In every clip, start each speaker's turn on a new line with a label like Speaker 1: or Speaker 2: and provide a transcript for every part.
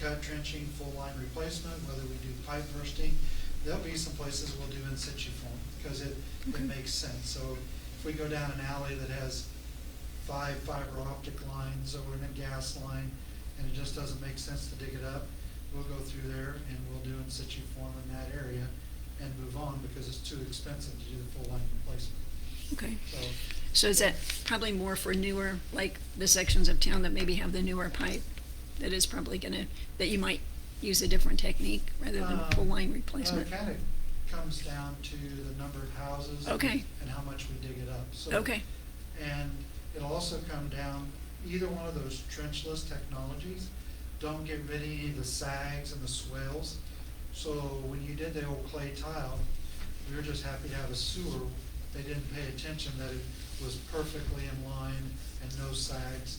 Speaker 1: cut trenching, full line replacement, whether we do pipe bursting. There'll be some places we'll do in situ form, because it, it
Speaker 2: Okay.
Speaker 1: makes sense. So if we go down an alley that has five fiber optic lines or a gas line, and it just doesn't make sense to dig it up, we'll go through there and we'll do in situ form in that area and move on, because it's too expensive to do the full line replacement.
Speaker 2: Okay,
Speaker 1: So
Speaker 2: so is that probably more for newer, like the sections of town that maybe have the newer pipe? That is probably gonna, that you might use a different technique rather than
Speaker 1: Um,
Speaker 2: full line
Speaker 1: Well,
Speaker 2: replacement?
Speaker 1: it kind of comes down to the number of houses.
Speaker 2: Okay.
Speaker 1: And how much we dig it up, so.
Speaker 2: Okay,
Speaker 1: And it'll also come down, either one of those trenchless technologies, don't get rid of any of the sags and the swells. So when you did the old clay tile, we were just happy to have a sewer. They didn't pay attention that it was perfectly in line and no sags.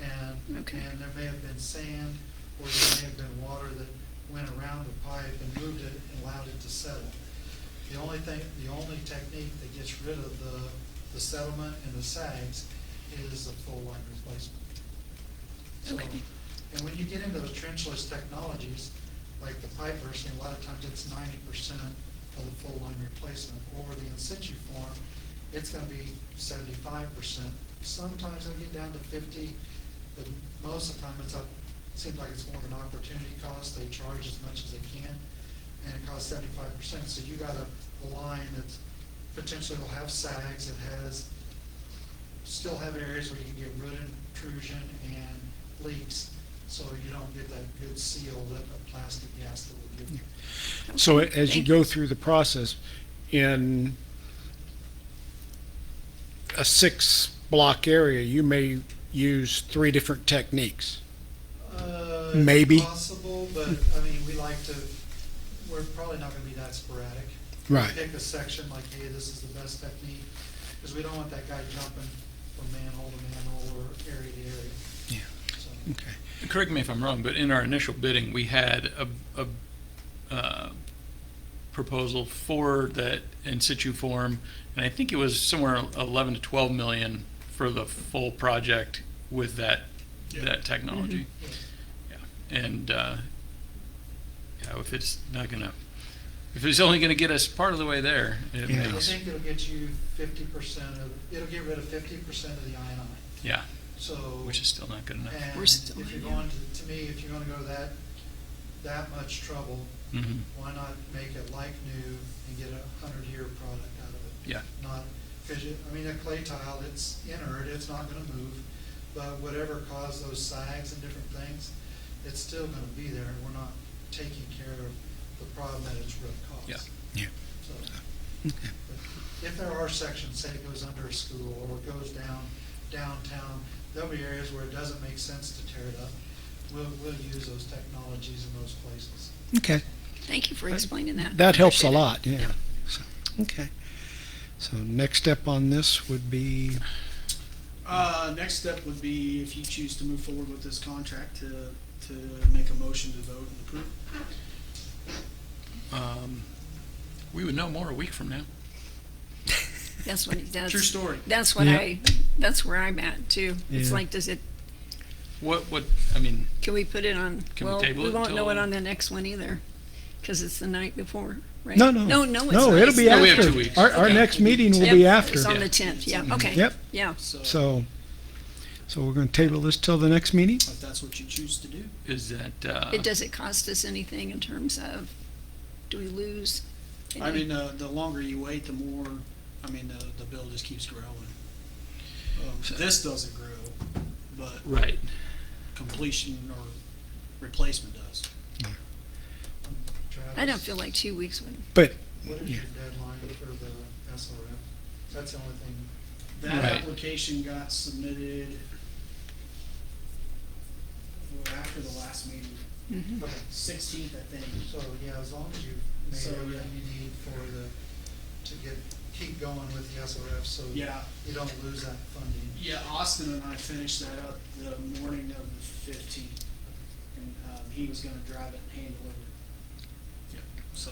Speaker 1: And, and
Speaker 2: Okay.
Speaker 1: there may have been sand or there may have been water that went around the pipe and moved it and allowed it to settle. The only thing, the only technique that gets rid of the, the settlement and the sags is a full line replacement. So,
Speaker 2: Okay.
Speaker 1: And when you get into the trenchless technologies, like the pipe bursting, a lot of times it's ninety percent of the full line replacement. Or the in situ form, it's gonna be seventy-five percent. Sometimes it'll get down to fifty, but most of the time it's up, seems like it's more of an opportunity cost. They charge as much as they can, and it costs seventy-five percent. So you got a, a line that's potentially will have sags, it has still have areas where you can get root intrusion and leaks, so you don't get that good seal that a plastic gas that would give you.
Speaker 3: So a- as you
Speaker 2: Thank
Speaker 3: go through the process, in a six-block area, you may use three different techniques.
Speaker 1: Uh,
Speaker 3: Maybe.
Speaker 1: Possible, but, I mean, we like to, we're probably not gonna be that sporadic.
Speaker 3: Right.
Speaker 1: Pick a section like, hey, this is the best technique, because we don't want that guy jumping from manhole to manhole or area to area.
Speaker 3: Yeah.
Speaker 1: So,
Speaker 3: Okay.
Speaker 4: Correct me if I'm wrong, but in our initial bidding, we had a, a uh, proposal for that in situ form, and I think it was somewhere 11 to 12 million for the full project with that, that technology.
Speaker 1: yeah.
Speaker 4: Yeah, And, uh, yeah, if it's not gonna, if it's only gonna get us part of the way there, it
Speaker 3: Yeah.
Speaker 1: I
Speaker 3: Yes.
Speaker 4: makes,
Speaker 1: think it'll get you fifty percent of, it'll get rid of fifty percent of the INI,
Speaker 4: yeah,
Speaker 1: so.
Speaker 4: which is still not good enough.
Speaker 1: And
Speaker 2: We're still
Speaker 1: if you're
Speaker 2: in, yeah.
Speaker 1: going to, to me, if you're gonna go to that, that much trouble,
Speaker 4: Mhm.
Speaker 1: why not make it like new and get a hundred-year product out of it?
Speaker 4: Yeah.
Speaker 1: Not, cause you, I mean, a clay tile, it's inert, it's not gonna move, but whatever caused those sags and different things, it's still gonna be there, and we're not taking care of the problem that it's really caused.
Speaker 4: Yeah.
Speaker 3: Yeah.
Speaker 1: So, but if there are sections, say it goes under a school or it goes down downtown, there'll be areas where it doesn't make sense to tear it up. We'll, we'll use those technologies in those places.
Speaker 3: Okay.
Speaker 2: thank you for explaining that.
Speaker 3: That helps a
Speaker 2: Appreciate it.
Speaker 3: lot, yeah. So, Okay. So next step on this would be,
Speaker 5: Uh, next step would be if you choose to move forward with this contract to, to make a motion to vote and approve.
Speaker 4: Um, We would know more a week from now.
Speaker 2: That's what, it
Speaker 5: True
Speaker 2: does.
Speaker 5: story.
Speaker 2: that's what
Speaker 3: Yeah.
Speaker 2: I, that's where I'm at too. It's
Speaker 3: Yeah.
Speaker 2: like, does it,
Speaker 4: What, what, I mean,
Speaker 2: can we put it on?
Speaker 4: Can we
Speaker 2: Well,
Speaker 4: table
Speaker 2: we
Speaker 4: it
Speaker 2: won't know it
Speaker 4: till-
Speaker 2: on the next one either, because it's the night before, right?
Speaker 3: no, no.
Speaker 2: No,
Speaker 4: Oh,
Speaker 2: no, it's not.
Speaker 3: No, it'll
Speaker 2: It's
Speaker 3: be
Speaker 2: not.
Speaker 4: No, we have
Speaker 3: after.
Speaker 4: two weeks.
Speaker 3: Our, our
Speaker 4: Okay.
Speaker 3: next meeting will
Speaker 2: Yep,
Speaker 3: be after. Mm-hmm.
Speaker 2: It's on the
Speaker 4: Yeah.
Speaker 2: tenth, yeah, okay.
Speaker 3: Yep.
Speaker 2: Yeah,
Speaker 5: So
Speaker 3: So, so we're going to table this till the next meeting?
Speaker 5: if that's what you choose to do,
Speaker 4: is that, uh,
Speaker 2: it, does it cost us anything in terms of, do we lose?
Speaker 5: I
Speaker 2: any-
Speaker 5: mean, uh, the longer you wait, the more, I mean, the, the bill just keeps growing. Um, This doesn't grow, but
Speaker 4: right.
Speaker 5: completion or replacement does.
Speaker 2: I
Speaker 5: uh,
Speaker 2: don't feel like two weeks would,
Speaker 3: But,
Speaker 1: What is
Speaker 3: yeah.
Speaker 1: your deadline for the SRF? That's the only thing.
Speaker 5: That
Speaker 4: Right.
Speaker 5: application got submitted well, after the last meeting,
Speaker 2: Mhm.
Speaker 1: Okay.
Speaker 5: sixteenth, I think.
Speaker 1: So, yeah, as long as you've
Speaker 5: So,
Speaker 1: made
Speaker 5: yeah.
Speaker 1: everything you need for the, to get, keep going with the SRF, so
Speaker 5: Yeah,
Speaker 1: you don't lose that funding.
Speaker 5: Yeah, Austin and I finished that up the morning of the fifteenth, and, um, he was gonna drive it and hand deliver it. So,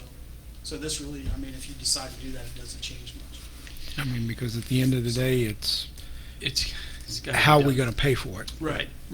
Speaker 5: so this really, I mean, if you decide to do that, it doesn't change much.
Speaker 3: I mean, because at the end of the day, it's
Speaker 4: It's, it's gotta be
Speaker 3: how are we
Speaker 4: done.
Speaker 3: going to pay for it?
Speaker 4: Right.